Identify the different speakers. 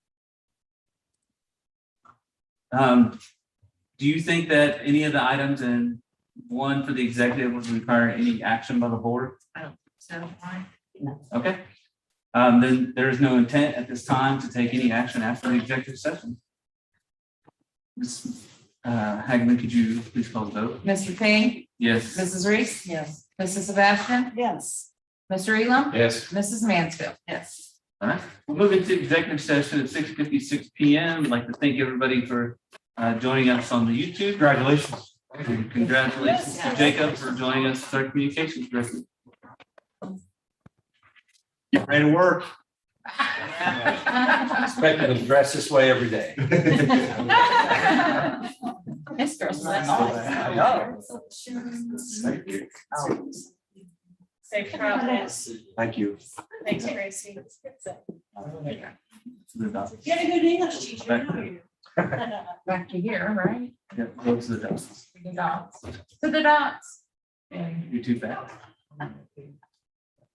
Speaker 1: Um, do you think that any of the items in one for the executive would require any action by the board?
Speaker 2: So, why?
Speaker 1: Okay. Um, then there is no intent at this time to take any action after the executive session. Ms. Uh, Hagman, could you please call the vote?
Speaker 2: Mr. Payne,
Speaker 1: Yes.
Speaker 2: Mrs. Reese? Yes. Mrs. Sebastian?
Speaker 3: Yes.
Speaker 2: Mr. Elam?
Speaker 4: Yes.
Speaker 2: Mrs. Mansfield?
Speaker 3: Yes.
Speaker 1: All right, we'll move into executive session at six fifty-six P M. I'd like to thank everybody for uh, joining us on the YouTube.
Speaker 4: Congratulations.
Speaker 1: And Congratulations to Jacob for joining us as our communications director.
Speaker 4: Get ready to work. Expected to dress this way every day.
Speaker 2: Mr.
Speaker 4: Thank you.
Speaker 3: Safe travels.
Speaker 4: Thank you.
Speaker 3: Thanks, Tracy.
Speaker 1: to the doc.
Speaker 3: You had a good English teacher,
Speaker 1: Back
Speaker 3: didn't you?
Speaker 2: Back to here, right?
Speaker 1: Yeah, go to the doc.
Speaker 2: To the dots. To the dots.
Speaker 1: You're too fast.